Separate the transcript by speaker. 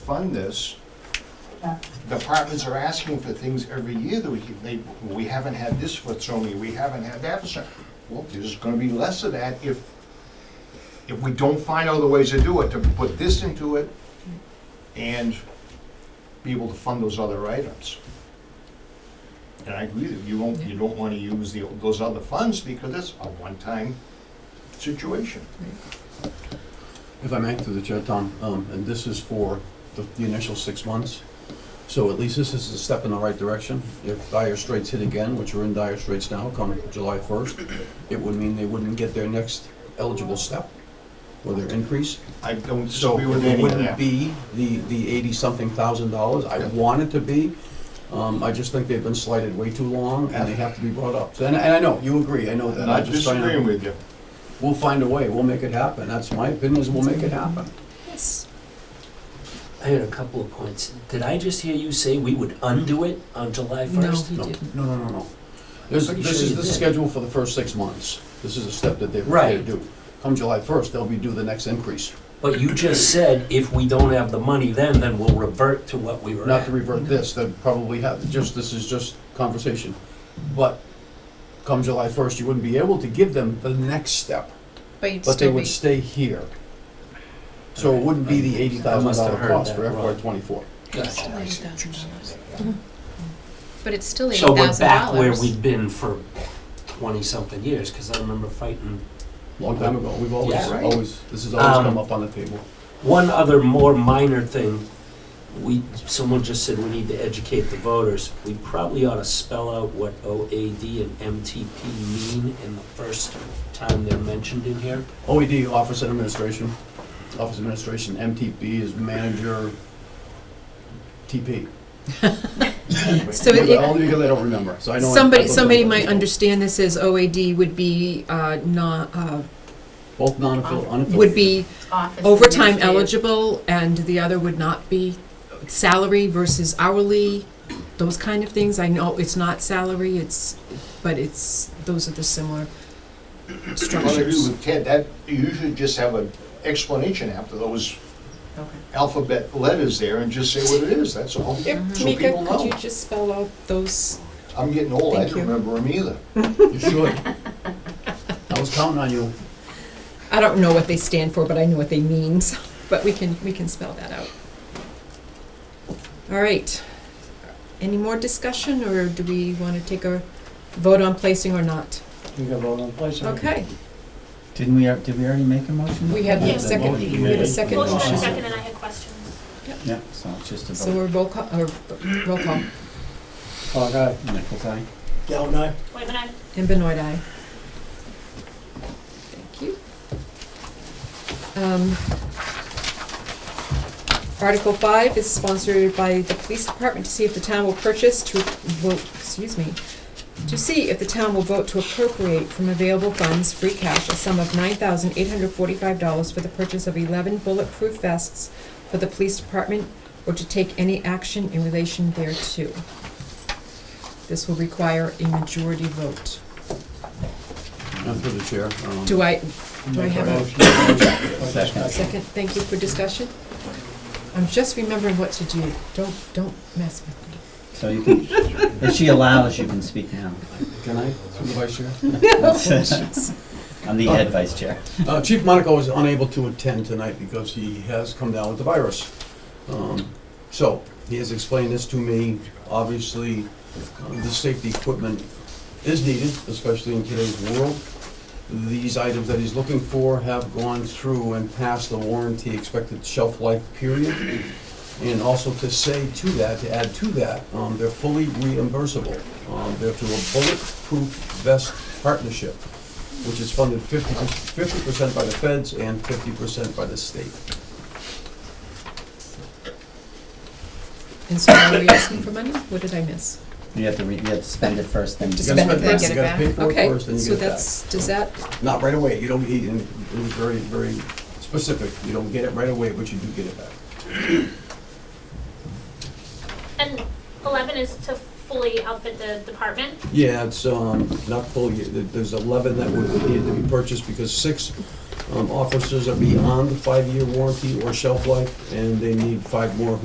Speaker 1: fund this, departments are asking for things every year that we, keep- they, we haven't had this for so many, we haven't had that for so. Well, there's gonna be less of that if, if we don't find other ways to do it, to put this into it and be able to fund those other items. And I agree that you won't, you don't wanna use the, those other funds because it's a one-time situation.
Speaker 2: If I may, through the chair, Tom, um, and this is for the, the initial six months. So at least this is a step in the right direction. If dire straits hit again, which are in dire straits now, come July first, it would mean they wouldn't get their next eligible step or their increase.
Speaker 1: I don't
Speaker 2: So
Speaker 1: disagree with
Speaker 2: it
Speaker 1: any of
Speaker 2: wouldn't
Speaker 1: that.
Speaker 2: be the, the eighty-something thousand dollars. I
Speaker 1: Yeah.
Speaker 2: want it to be. Um, I just think they've been slighted way too long and they have to be brought up. So, And, and I know, you agree, I know that.
Speaker 1: I'm not
Speaker 2: I'm just trying to-
Speaker 1: disagreeing with you.
Speaker 2: We'll find a way, we'll make it happen. That's my opinion, is we'll make it happen.
Speaker 3: Yes.
Speaker 4: I had a couple of points. Did I just hear you say we would undo it on July
Speaker 3: No.
Speaker 4: first?
Speaker 3: You
Speaker 2: No,
Speaker 3: did.
Speaker 2: no, no, no, no. This,
Speaker 4: Pretty
Speaker 2: this
Speaker 4: sure
Speaker 2: is,
Speaker 4: you
Speaker 2: this is
Speaker 4: did.
Speaker 2: scheduled for the first six months. This is a step that they're
Speaker 4: Right.
Speaker 2: prepared to do. Come July first, they'll be due the next increase.
Speaker 4: But you just said if we don't have the money then, then we'll revert to what we were
Speaker 2: Not
Speaker 4: at.
Speaker 2: to revert this, they probably have, just, this is just conversation. But come July first, you wouldn't be able to give them the next step,
Speaker 3: But you'd
Speaker 2: but they
Speaker 3: still be,
Speaker 2: would stay here. So it wouldn't be the eighty thousand
Speaker 4: must have
Speaker 2: dollar
Speaker 4: heard
Speaker 2: cost
Speaker 4: that
Speaker 2: for
Speaker 4: wrong.
Speaker 2: FY twenty-four.
Speaker 3: it's still
Speaker 1: I
Speaker 3: eighty
Speaker 1: see what
Speaker 3: thousand
Speaker 1: you're saying.
Speaker 3: dollars. But it's still eighty
Speaker 4: So we're
Speaker 3: thousand
Speaker 4: back where
Speaker 3: dollars.
Speaker 4: we've been for twenty-something years, because I remember fighting.
Speaker 2: Long time ago, we've always,
Speaker 4: Yeah.
Speaker 1: Right.
Speaker 2: always, this has always
Speaker 4: Um,
Speaker 2: come up on the table.
Speaker 4: One other more minor thing, we, someone just said we need to educate the voters. We probably ought to spell out what OAD and MTP mean in the first time they're mentioned in here.
Speaker 2: OED, E Office of Administration. Office of Administration, MTP is Manager TP.
Speaker 5: So it-
Speaker 2: Because- Only because I don't remember, so I know. I- I
Speaker 5: Somebody,
Speaker 2: looked
Speaker 5: somebody
Speaker 2: at it.
Speaker 5: might understand this as OAD would be, uh, not, uh,
Speaker 2: Both non-affiliated, unaffiliated.
Speaker 5: Um, would be
Speaker 6: office
Speaker 5: overtime
Speaker 6: administrative.
Speaker 5: eligible, and the other would not be salary versus hourly, those kind of things. I know it's not salary, it's, but it's, those are the similar
Speaker 1: I agree
Speaker 5: structures.
Speaker 1: with Ted, that, you should just have an explanation after those
Speaker 6: Okay.
Speaker 1: alphabet letters there and just say what it is, that's all. So people know.
Speaker 5: just spell out those?
Speaker 1: I'm getting old, I
Speaker 5: Thank
Speaker 1: don't
Speaker 5: you.
Speaker 1: remember them either.
Speaker 2: You should. I was counting on you.
Speaker 5: I don't know what they stand for, but I know what they mean, so- but we can, we can spell that out. All right. Any more discussion, or do we want to take a vote on placing or not?
Speaker 7: You got vote on place. huh?
Speaker 5: Okay,
Speaker 7: Didn't we, did we already make a motion?
Speaker 5: we had
Speaker 7: Yeah,
Speaker 5: a
Speaker 7: the
Speaker 5: second,
Speaker 7: motion
Speaker 5: we had a
Speaker 7: made.
Speaker 5: second
Speaker 8: Motion and
Speaker 5: motion.
Speaker 8: second, and I had questions.
Speaker 7: Yeah, so it's just a
Speaker 5: So
Speaker 7: vote.
Speaker 5: we're roll call, or roll call,
Speaker 7: Clark, aye. Nichols, aye.
Speaker 4: Galvin, I?
Speaker 8: Wait, but I,
Speaker 5: and Benoit, aye. Thank you. Um, Article five is sponsored by the police department to see if the town will purchase to, vote. excuse me, to see if the town will vote to appropriate from available funds, free cash, a sum of nine thousand eight hundred forty-five dollars for the purchase of eleven bulletproof vests for the police department, or to take any action in relation thereto. This will require a majority vote.
Speaker 2: I'm through the chair. um,
Speaker 5: Do I, do I
Speaker 7: Make a
Speaker 5: have a
Speaker 7: motion. Second.
Speaker 5: second? Thank you for discussion. I'm just remembering what to do. Don't, don't mess with me.
Speaker 7: So you can, if she allows, you can speak now.
Speaker 2: Can I, through the vice chair?
Speaker 7: I'm the
Speaker 2: Oh.
Speaker 7: head vice chair.
Speaker 2: Uh, Chief Monaco is unable to attend tonight because he has come down with the virus. Um, So, he has explained this to me. Obviously, um, the safety equipment is needed, especially in today's world. These items that he's looking for have gone through and passed the warranty expected shelf life period. And also to say to that, to add to that, um, they're fully reimbursable. Um, They're through a bulletproof vest partnership which is funded 50 percent by the feds and fifty percent by the state.
Speaker 5: And so now we're asking for money? What did I miss?
Speaker 7: You have to, re- you have to spend it first, then.
Speaker 5: To
Speaker 2: You
Speaker 5: spend
Speaker 2: gotta
Speaker 5: it, then
Speaker 2: first,
Speaker 5: get
Speaker 2: you
Speaker 5: it
Speaker 2: gotta
Speaker 5: back?
Speaker 2: pay for it
Speaker 5: Okay,
Speaker 2: first, then you
Speaker 5: so
Speaker 2: get it
Speaker 5: that's, does that,
Speaker 2: back. Not right away, you don't, he, and it was very, very specific, you don't get it right away, but you do get it back.
Speaker 8: and eleven is to fully outfit the department.
Speaker 2: Yeah, it's, um, not full, yet. There- there's eleven that would need to be purchased because six Um, Officers are beyond the five-year warranty or shelf life, and they need five more